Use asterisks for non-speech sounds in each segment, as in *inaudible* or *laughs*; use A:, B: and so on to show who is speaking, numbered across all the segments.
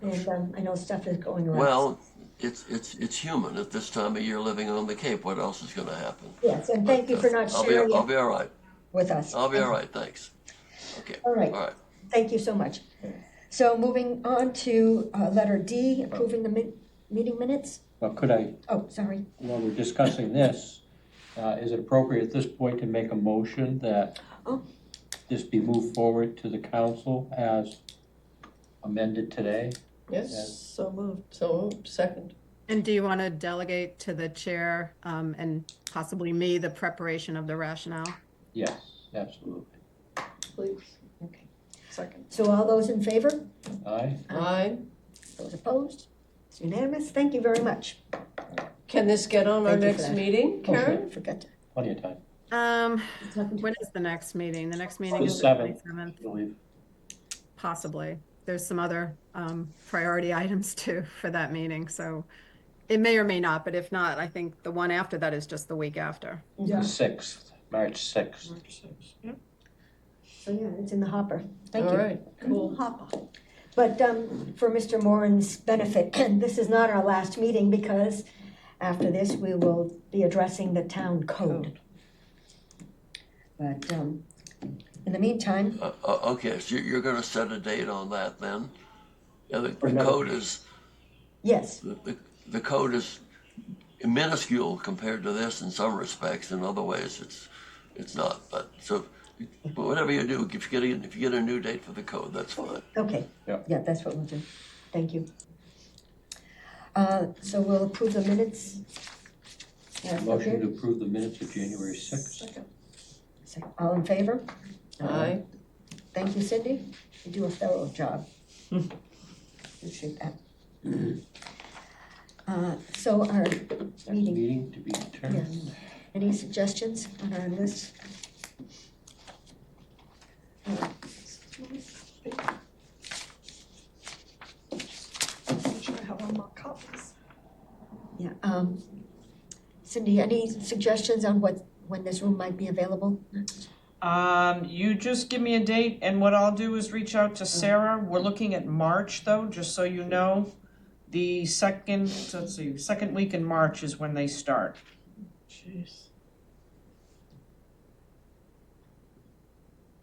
A: And um, I know stuff is going around.
B: Well, it's, it's, it's human at this time of year living on the Cape. What else is going to happen? uh,
A: Yes, and thank you for not
B: I'll be,
A: sharing
B: I'll
A: it
B: be all right.
A: with us.
B: I'll be all right. Thanks. Okay.
A: All right.
B: All right.
A: Thank you so much. So moving on to uh, letter D, approving the mi- meeting minutes.
C: Well, could I,
A: Oh, sorry.
C: while we're discussing this, uh, is it appropriate at this point to make a motion that
A: Oh.
C: this be moved forward to the council as amended today?
D: Yes,
C: Yes.
D: so moved, so moved, second.
E: And do you want to delegate to the chair um, and possibly me the preparation of the rationale?
C: Yes, absolutely.
D: Please.
A: Okay.
D: Second.
A: So all those in favor?
C: Aye?
D: Aye.
A: Those opposed? It's unanimous. Thank you very much.
D: Can this get on our
A: Thank you for
D: next
A: that.
D: meeting,
C: sure.
D: Karen?
A: Forgot to.
C: Plenty of time,
E: Um,
A: it's nothing to-
E: when is the next meeting? The next meeting
C: The
E: is the
C: 7th.
E: 27th,
C: I believe.
E: possibly. There's some other um, priority *laughs* items too for that meeting, so it may or may not, but if not, I think the one after that is just the week after.
C: The
A: Yeah,
C: 6th, March 6th.
A: so yeah, it's in the hopper. Thank
D: All
A: you.
D: right, cool.
A: Hopper. Mm-hmm. But um, for Mr. Moran's benefit, *clears throat* this is not our last meeting because after this, we will be addressing the town code.
C: Oh.
A: But um, in the meantime,
B: Uh, uh, okay. So you're, you're going to set a date on that then? Yeah, the,
C: For
B: the
C: another
B: code is,
A: yes,
B: the, the- the code is minuscule compared to this in some respects. In other ways, it's, it's not. But so, but whatever you do, if you get a, if you get a new date for the code, that's fine.
A: okay.
C: Yeah.
A: Yeah, that's what we'll do. Thank you. Uh, So we'll approve the minutes. Yeah,
C: Motion to
A: okay.
C: approve the minutes of January 6th.
A: So, All in favor?
D: Aye.
A: Thank you, Cindy. You do a thorough job. Appreciate that. Uh, So our meeting,
C: Meeting to be determined.
A: any suggestions on our list? Yeah, um, Cindy, any suggestions on what, when this room might be available?
F: Um, you just give me a date, and what I'll do is reach out to Sarah. We're looking at March, though, just so you know. The second, let's see, second week in March is when they start.
D: Jeez.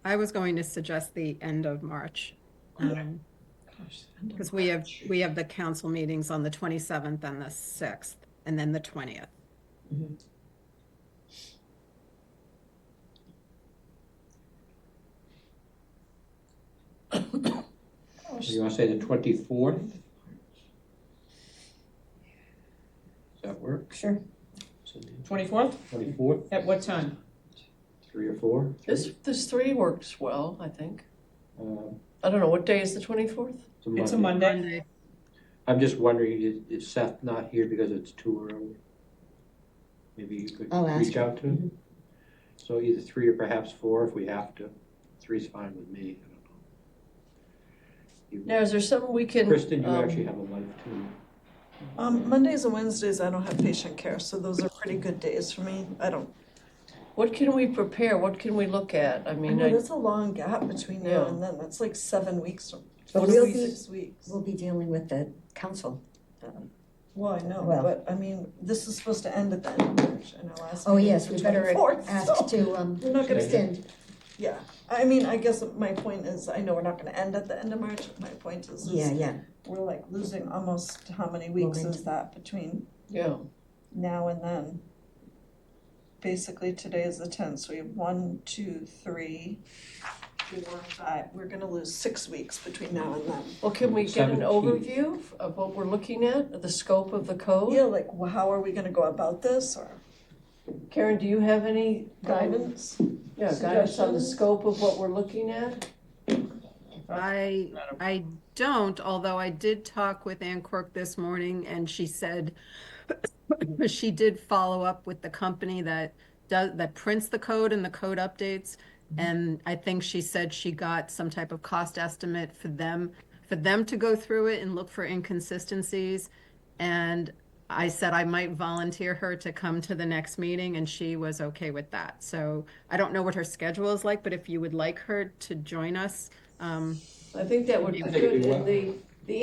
E: I was going to suggest the end of March. Because we have, we have the council meetings on the 27th and the 6th, and then the 20th.
C: You want to say the 24th? Does that work?
A: Sure.
C: Cindy?
F: Twenty-fourth,
C: 24th,
F: at what time?
C: 3 or 4?
D: This, this three works well, I think.
C: Um,
D: I don't know, what day is the twenty-fourth?
F: It's a Monday.
E: Monday.
C: I'm just wondering, is- is Seth not here because it's too early? Maybe you could
A: I'll ask
C: reach out to him? So either three or perhaps four if we have to. Three's fine with me, I don't know. You-
D: Now, is there something we can?
C: Kristen, you
D: um,
C: actually have a life too.
G: Um, Mondays and Wednesdays, I don't have patient care, so those are pretty good days for me. I don't,
D: What can we prepare? What can we look at? I
G: I
D: mean,
G: know
D: I,
G: there's a long gap between now and then. That's like seven weeks or
A: But
G: four
A: we'll
G: weeks,
A: be-
G: six weeks.
A: We'll be dealing with the council. um,
G: Well, I know,
A: Well-
G: but I mean, this is supposed to end at the end of March, and our last
A: Oh,
G: meeting
A: yes,
G: is the
A: we better
G: 24th, so-
A: ask to um,
G: We're not gonna-
A: extend.
G: Yeah, I mean, I guess my point is, I know we're not gonna end at the end of March. My point is, is
A: Yeah, yeah.
G: we're like losing almost how many weeks is
A: Momentum.
G: that between
D: yeah,
G: now and then. Basically, today is the tenth, so we have one, two, three, four, five. We're gonna lose six weeks between now and then.
D: well, can we get an
C: 17th.
D: overview of what we're looking at, the scope of the
G: Yeah,
D: code?
G: like wh- how are we gonna go about this or
D: Karen, do you have any guidance?
G: guidance?
D: Yeah, guidance on the
G: Suggestions?
D: scope of what we're looking at?
E: I, I don't, although I did talk with Ann Quirk this morning and she said *coughs* she did follow up with the company that does, that prints the code and the code updates. And I think she said she got some type of cost estimate for them, for them to go through it and look for inconsistencies. And I said I might volunteer her to come to the next meeting, and she was okay with that. So I don't know what her schedule is like, but if you would like her to join us, um,
D: I think that would be
C: I think it'd
D: good
C: be
D: in the